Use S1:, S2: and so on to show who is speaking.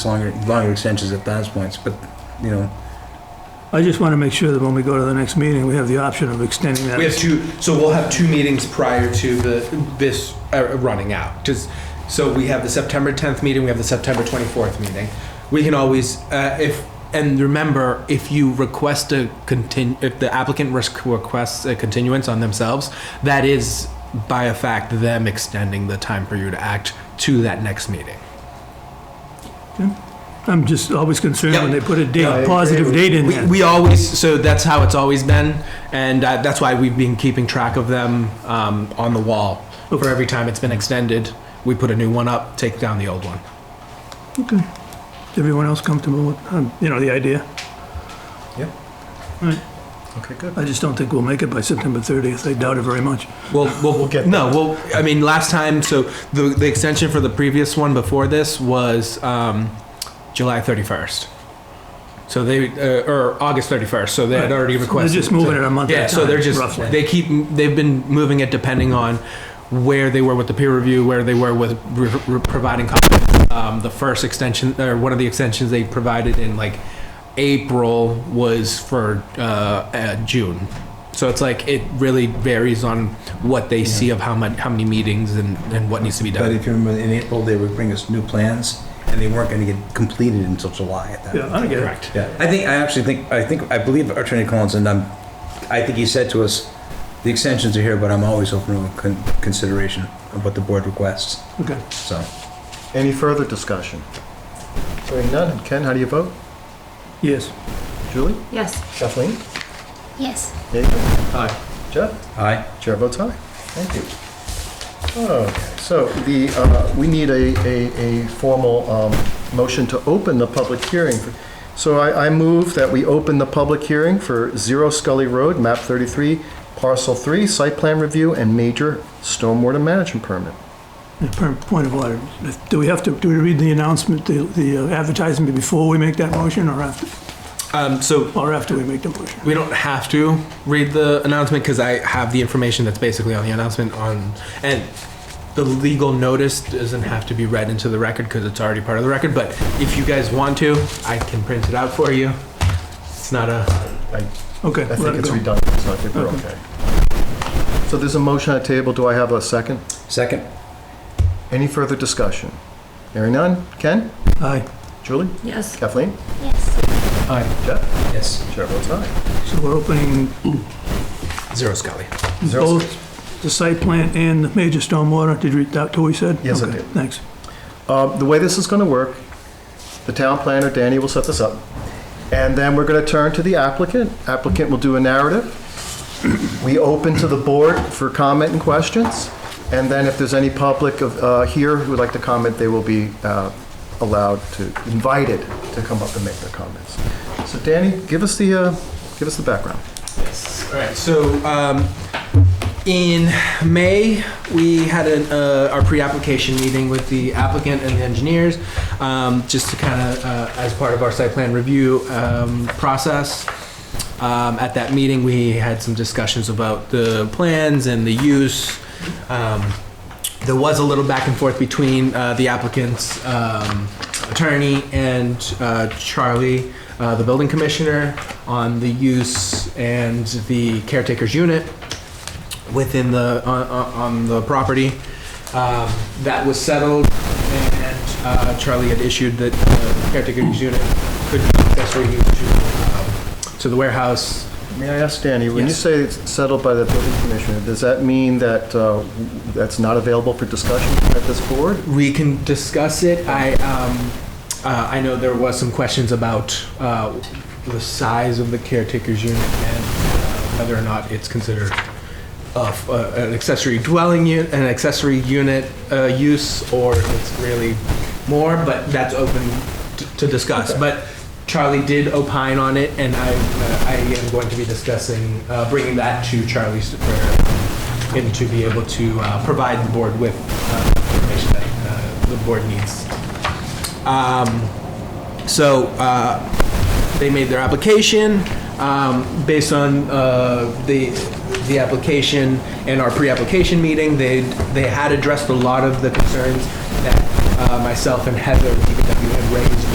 S1: longer, longer extensions at those points, but, you know,
S2: I just want to make sure that when we go to the next meeting, we have the option of extending that.
S3: We have two, so we'll have two meetings prior to the, this uh, running out. Just, so we have the September 10th meeting, we have the September 24th meeting. We can always, uh, if, and remember, if you request a contin, if the applicant risk requests a continuance on themselves, that is by a fact them extending the time for you to act to that next meeting.
S2: I'm just always concerned when they put a date,
S3: Yeah.
S2: a positive date in
S3: We,
S2: there.
S3: we always, so that's how it's always been, and uh, that's why we've been keeping track of them um, on the wall. For every time it's been extended, we put a new one up, take down the old one.
S2: Okay. Everyone else comfortable with, um, you know, the idea?
S3: Okay, good.
S2: I just don't think we'll make it by September 30th. I doubt it very much.
S3: Well, we'll, we'll get no. Well, I mean, last time, so the the extension for the previous one before this was um, July thirty first. So they uh, or August thirty first. So they had already
S2: Right. So they're
S3: requested.
S2: just moving it a month at
S3: Yeah.
S2: a
S3: so they're
S2: time,
S3: just
S2: roughly.
S3: they keep they've been moving it depending on where they were with the peer review, where they were with re- re- providing comments. Um, the first extension or one of the extensions they provided in like April was for uh, uh, June. So it's like it really varies on what they see of how much, how many meetings and, and what needs to be
S1: but
S3: done.
S1: if you remember, in April, they would bring us new plans, and they weren't gonna get completed until July at that
S2: Yeah, I get it.
S3: Correct.
S1: Yeah, I think, I actually think, I think, I believe Attorney Collins, and I'm, I think he said to us, the extensions are here, but I'm always open to con- consideration of what the board requests,
S2: Okay.
S1: so.
S4: Any further discussion? Hearing none. Ken, how do you vote?
S2: Yes.
S4: Julie?
S5: Yes.
S4: Kathleen?
S5: Yes.
S4: David?
S3: Aye.
S4: Jeff?
S1: Aye.
S4: Chair votes aye. Thank you. Okay, so the, uh, we need a, a, a formal um, motion to open the public hearing. So I, I move that we open the public hearing for Zero Scully Road, map 33, parcel 3, site plan review and major stormwater management permit.
S2: Yeah, per- Point of order. Do we have to, do we read the announcement, the- the uh, advertisement before we make that motion or after,
S3: Um, so
S2: or after we make the motion?
S3: We don't have to read the announcement because I have the information that's basically on the announcement on, and the legal notice doesn't have to be read into the record because it's already part of the record, but if you guys want to, I can print it out for you. It's not a,
S4: I
S2: Okay.
S4: I
S2: let
S4: think
S2: it
S4: it's
S2: go.
S4: redundant, so I think we're okay. So there's a motion on the table, do I have a second?
S1: Second?
S4: Any further discussion? Hearing none, Ken?
S2: Aye.
S4: Julie?
S5: Yes.
S4: Kathleen?
S5: Yes.
S4: Jeff?
S1: Yes.
S4: Chair votes aye.
S2: So we're opening
S3: zero Scully.
S4: Zero.
S2: both the site plan and the major stormwater. Did you read that, what we said?
S4: Yes, I
S2: Okay,
S4: did.
S2: Thanks.
S4: Uh, The way this is going to work, the town planner, Danny, will set this up, and then we're going to turn to the applicant. Applicant will do a narrative. We open to the board for comment and questions, and then if there's any public of, uh, here who would like to comment, they will be uh, allowed to, invited to come up and make their comments. So Danny, give us the, uh, give us the background.
S3: All right, so um, in May, we had an, uh, our pre-application meeting with the applicant and the engineers, um, just to kind of, uh, as part of our site plan review um, process. Um, at that meeting, we had some discussions about the plans and the use. Um, there was a little back and forth between uh, the applicant's um, attorney and uh, Charlie, uh, the building commissioner, on the use and the caretaker's unit within the, on- on on the property. Um, That was settled, and uh, Charlie had issued that the caretaker's unit could be accessory use to, um, to the warehouse.
S4: May I ask Danny, when you
S3: Yes.
S4: say it's settled by the building commissioner, does that mean that uh, that's not available for discussion at this board?
S3: we can discuss it. I, um, uh, I know there was some questions about, uh, the size of the caretaker's unit and uh, whether or not it's considered a f- uh, an accessory dwelling unit, an accessory unit, uh, use, or if it's really more, but that's open t- to discuss. But Charlie did opine on it, and I, uh, I am going to be discussing, uh, bringing that to Charlie's, for him to be able to, uh, provide the board with, uh, information that, uh, the board needs. Um, so, uh, they made their application, um, based on, uh, the, the application and our pre-application meeting, they, they E had addressed a lot of the concerns that, uh, myself and Heather, DPW, had raised